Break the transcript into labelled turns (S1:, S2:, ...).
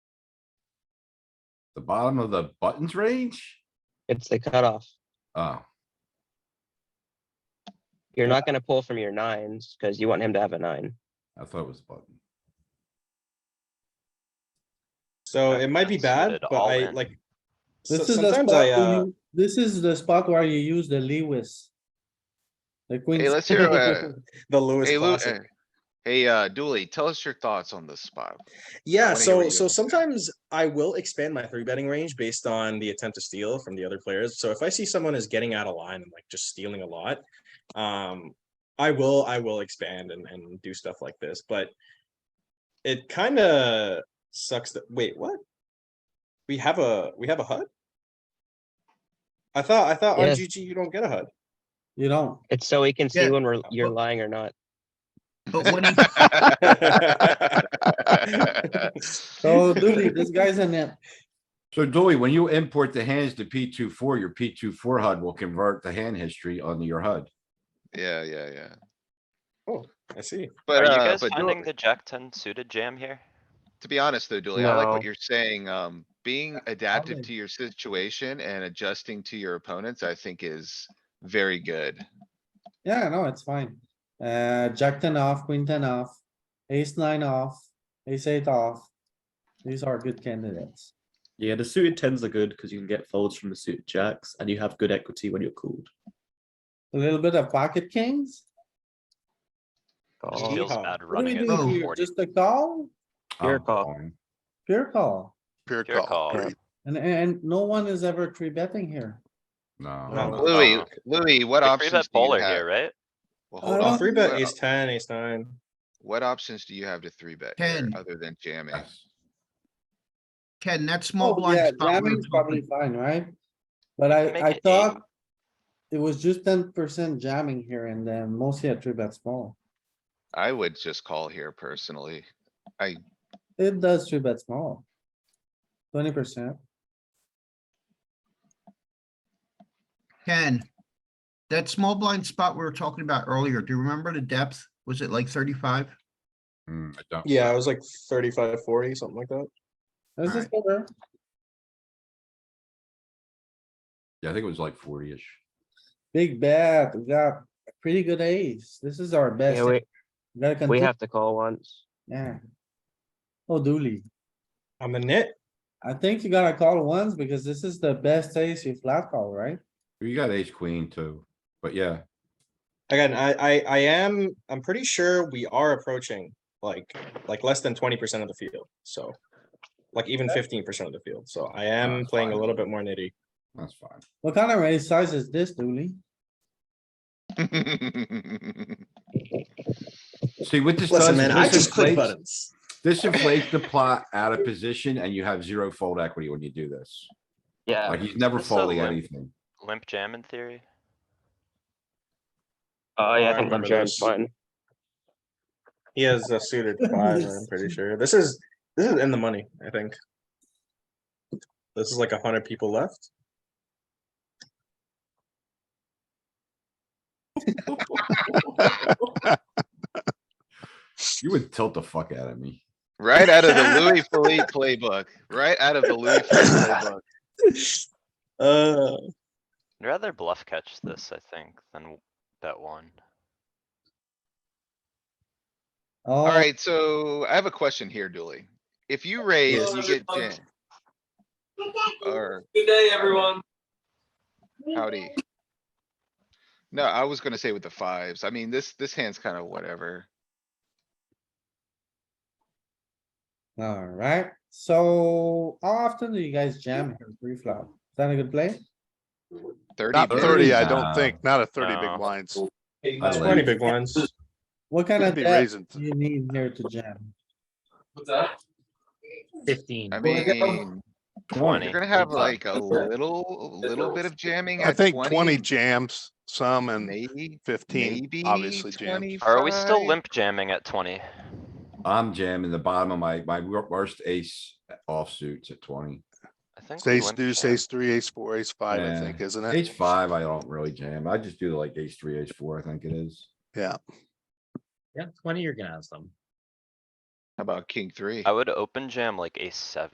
S1: The bottom of the buttons range?
S2: It's the cutoff.
S1: Oh,
S2: You're not gonna pull from your nines because you want him to have a nine.
S1: I thought it was button.
S3: So it might be
S4: That's suited
S3: bad, but
S4: all
S3: I
S4: in.
S3: like. so-
S5: This is the spot,
S3: Sometimes I,
S5: where
S3: uh,
S5: you- this is the spot where you use the Lewis. The queen.
S6: Hey, let's hear, uh,
S3: the Lewis
S6: Hey, Lou,
S3: classic.
S6: eh, hey, uh, Dooley, tell us your thoughts on this spot.
S3: Yeah,
S6: wanna hear what
S3: so
S6: you
S3: so
S6: have to say.
S3: sometimes I will expand my three betting range based on the attempt to steal from the other players. So if I see someone is getting out of line and like just stealing a lot, um, I will I will expand and and do stuff like this. But it kind of sucks that wait what we have a we have a HUD. I thought I thought
S2: Yes.
S3: RGG you don't get a HUD.
S5: You know,
S2: It's so we can see
S7: Yeah,
S2: when we're, you're
S7: but-
S2: lying or not.
S7: But when he,
S5: so Dooley, this guy's in it.
S1: So Dooley, when you import the hands to P 24 your P 24 HUD will convert the hand history onto your HUD.
S6: Yeah, yeah, yeah.
S3: I see.
S4: Are
S6: But,
S4: you
S6: uh,
S4: guys
S6: but
S4: finding
S6: Dooley-
S4: the jack ten suited jam here?
S6: to be honest though, Dooley, I like what
S2: No.
S6: you're saying. Um, being adaptive
S5: would-
S6: to your situation and adjusting to your opponents, I think is very good.
S5: Yeah, no, it's fine. Uh, jack ten off, queen ten off, ace nine off, ace eight off. These are good candidates.
S8: Yeah, the suited tens are good because you can get folds from the suited jacks, and you have good equity when you're called.
S5: A little bit of pocket kings.
S4: Just
S3: Oh.
S4: feels
S3: Yeehaw.
S4: bad
S5: What do we
S4: running it
S5: do
S6: Oh,
S4: from
S5: here?
S4: forty.
S5: Just a call,
S2: Your
S1: I'm
S2: call.
S1: calling.
S5: pure call.
S9: Pure
S4: Your call.
S9: call. right?
S5: And, and no one is ever three betting here.
S1: No,
S3: No.
S6: Louis,
S4: Uh-uh.
S6: Um, Louis, what
S4: We three
S6: options
S4: bet
S6: do you
S4: bowler
S6: have?
S4: here, right?
S6: Well,
S5: I
S6: hold
S5: don't
S6: on.
S3: Three Uh, bet
S6: What
S3: ace
S6: op-
S3: ten, ace nine.
S6: What options do you have to three bet here,
S9: Ten.
S6: other than jamming?
S1: yes.
S9: Ken, that small
S5: Oh, yeah,
S9: blind spot. we were
S5: jamming's probably fine,
S9: talking-
S5: right? But I,
S4: Make
S5: I
S4: it eight.
S5: thought it was just ten percent jamming here and then mostly a three bet small.
S6: I would just call here personally.
S5: It does three bet small. Twenty percent.
S9: Ken, that small blind spot we were talking about earlier, do you remember the depth? Was it like thirty-five?
S1: Mm, I don't-
S3: Yeah, it was like 35, 40, something like that.
S5: This is
S9: Alright.
S5: better.
S1: Yeah, I think it was like forty-ish.
S5: Big bet. We got a pretty good ace. This is our best.
S2: Yeah, we,
S5: We gotta
S2: we
S5: continue.
S2: have to call once.
S5: Yeah. Oh, Dooley,
S3: I'm a nit.
S5: I think you gotta call once because this is the best ace you flat call, right?
S1: You got ace queen too, but yeah,
S3: Again, I, I, I am, I'm pretty sure we are approaching like, like less than twenty percent of the field, so. Like even fifteen percent of the field, so I am
S5: Ah,
S1: that's
S3: playing a
S1: fine.
S3: little bit more nitty.
S1: that's fine.
S5: What kind of ace size is this, Dooley?
S1: See, what this does. is this inflates-
S3: buttons.
S1: This inflates the plot out of position and you have zero fold equity when you do this.
S2: Yeah.
S1: Like he's never
S4: This is a
S1: folding
S4: limp.
S1: anything.
S4: Limp jam in theory.
S2: Oh, yeah,
S3: I
S2: I think I'm
S3: remember
S2: jamming
S3: this.
S2: fine.
S3: He has a suited five, I'm pretty sure. This is, this is in the money, I think. This is like a hundred people left.
S1: You would tilt the fuck out of me.
S6: Right out of the Louis Philippe playbook, right out of the Louis Philippe playbook.
S3: Uh,
S4: I'd rather bluff catch this, I think, than bet one.
S5: All
S6: Alright, so I have a question here, Dooley. If you raise, you get jam. Or. Good day, everyone. Howdy. No, I was gonna say with the fives. I mean, this, this hand's kinda whatever.
S5: Alright, so how often do you guys jam here pre-flop? Is that a good play?
S6: Thirty,
S9: Not
S6: big.
S9: thirty,
S1: Thirty,
S9: I
S1: I
S9: I
S1: don't think.
S9: Not a
S4: thirty big No.
S9: blinds.
S1: I like
S3: twenty
S1: it.
S3: big ones.
S5: What kind of
S9: be
S5: bet
S9: raising
S5: do you need here to jam?
S6: I
S5: Well, yeah.
S6: mean, you're
S4: Twenty.
S6: gonna have like a little, little bit of jamming
S10: I
S6: at
S10: think twenty
S6: twenty,
S10: jams, some and
S6: maybe,
S10: fifteen,
S6: maybe
S10: obviously jams.
S6: twenty-five.
S4: Are we still limp jamming at twenty?
S1: I'm jamming the bottom of my, my wor- worst ace offsuits at twenty.
S4: I think. we
S10: Ace
S4: limp
S10: deuce,
S4: jam.
S10: ace three, ace four, ace five, I
S1: Yeah.
S10: think,
S9: Uh,
S10: isn't it?
S1: Ace five, I don't really jam. I just do like ace three, ace four, I think it is.
S10: Yeah,
S6: How about king three?
S4: I would open jam like ace seven.